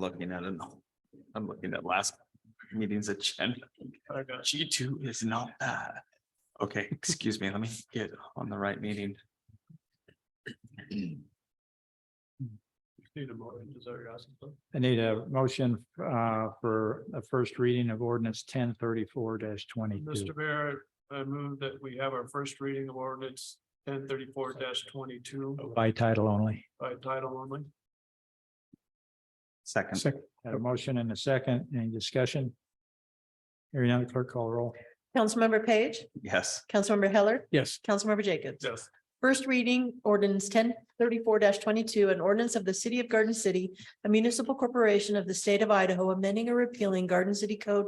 looking at it. now. I'm looking at last meeting's agenda. G two is not that. Okay, excuse me, let me get on the right meeting. I need a motion uh for a first reading of ordinance ten thirty-four twenty-two. Mr. Mayor, I move that we have our first reading of ordinance ten thirty-four twenty-two By title only. by title only. Second, Had a motion and a second. Any discussion? Hearing none, clerk call the roll. Councilmember Page, yes, Councilmember Heller, Yes. Councilmember Jacobs. Yes. First reading ordinance ten thirty-four twenty-two, an ordinance of the city of Garden City, a municipal corporation of the state of Idaho, amending or repealing Garden City Code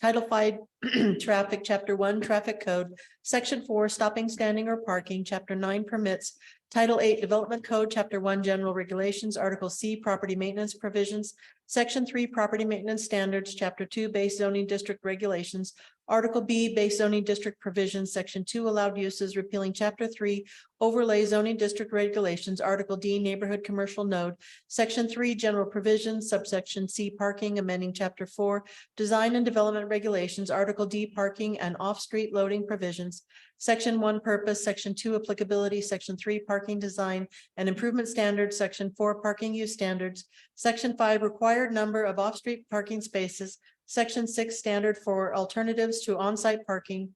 Title Five Traffic, Chapter One Traffic Code, Section Four Stopping, Standing or Parking, Chapter Nine Permits, Title Eight Development Code, Chapter One General Regulations, Article C Property Maintenance Provisions, Section Three Property Maintenance Standards, Chapter Two Base Zoning District Regulations, Article B Base Zoning District Provisions, Section Two Allowed Uses, repealing Chapter Three overlay zoning district regulations, Article D neighborhood commercial node, section three general provisions, subsection C parking, amending chapter four, design and development regulations, Article D parking and off-street loading provisions, section one purpose, section two applicability, section three parking design and improvement standards, section four parking use standards, section five required number of off-street parking spaces, section six standard for alternatives to on-site parking,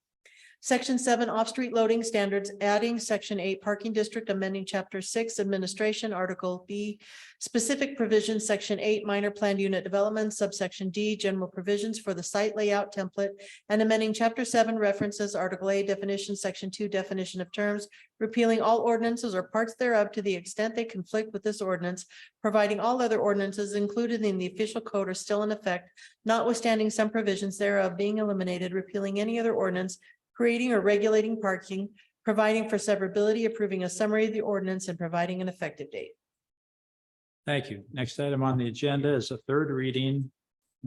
Section seven, off-street loading standards, adding section eight, parking district, amending chapter six, administration, article B. Specific provisions, section eight, minor planned unit development, subsection D, general provisions for the site layout template. And amending chapter seven references, article A definition, section two, definition of terms. Repealing all ordinances or parts thereof to the extent they conflict with this ordinance. Providing all other ordinances included in the official code are still in effect, notwithstanding some provisions thereof being eliminated, repealing any other ordinance creating or regulating parking, providing for severability, approving a summary of the ordinance, and providing an effective date. Thank you. Next item on the agenda is a third reading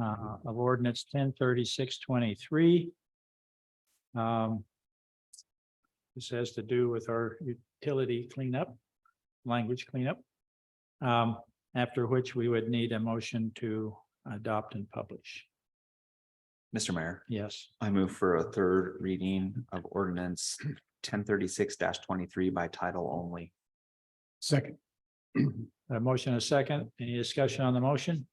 uh, of ordinance ten thirty-six twenty-three. This has to do with our utility cleanup, language cleanup. um, After which we would need a motion to adopt and publish. Mr. Mayor, Yes, I move for a third reading of ordinance ten thirty-six twenty-three by title only. Second. a motion, a second. Any discussion on the motion?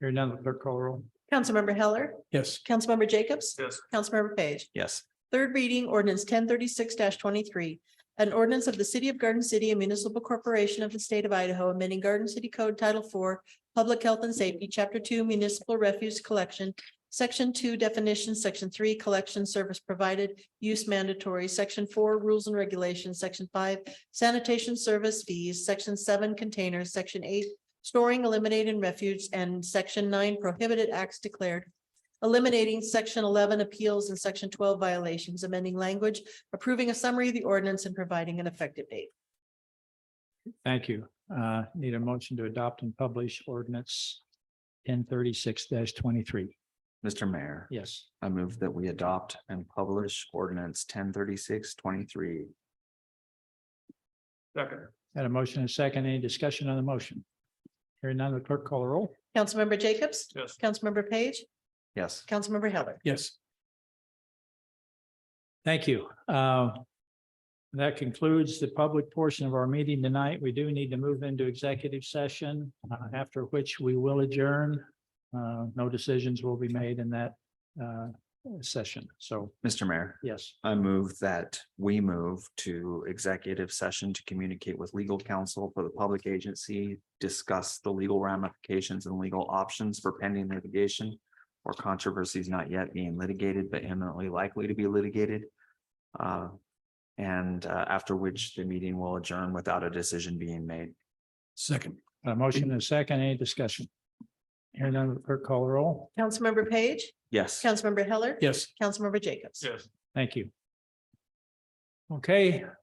Hearing none, clerk call the roll. Councilmember Heller, Yes. Councilmember Jacobs, Yes. Councilmember Page. Yes, Third reading ordinance ten thirty-six twenty-three. An ordinance of the city of Garden City, a municipal corporation of the state of Idaho, amending Garden City Code Title Four, Public Health and Safety, Chapter Two, Municipal Refuse Collection, Section Two Definitions, Section Three Collection Service Provided, Use Mandatory, Section Four Rules and Regulations, Section Five Sanitation Service Fees, Section Seven Containers, Section Eight Storing, Eliminating Refuge, and Section Nine Prohibited Acts Declared eliminating section eleven appeals and section twelve violations, amending language, approving a summary of the ordinance and providing an effective date. Thank you. Uh, need a motion to adopt and publish ordinance ten thirty-six twenty-three. Mr. Mayor. Yes, I move that we adopt and publish ordinance ten thirty-six twenty-three. Second. had a motion and a second. Any discussion on the motion? Hearing none, the clerk call the roll. Councilmember Jacobs, Yes. Councilmember Page, Yes, Councilmember Heller. Yes. Thank you. Uh, That concludes the public portion of our meeting tonight. We do need to move into executive session, uh, after which we will adjourn. Uh, No decisions will be made in that uh, session. So, Mr. Mayor. yes. I move that we move to executive session to communicate with legal counsel for the public agency, discuss the legal ramifications and legal options for pending litigation or controversies not yet being litigated but imminently likely to be litigated. Uh, And uh, after which the meeting will adjourn without a decision being made. Second. A motion and a second, any discussion? Hearing none, will the clerk call the roll. Councilmember Page, Yes. Councilmember Heller. Yes. Councilmember Jacobs. Yes. Thank you. Okay,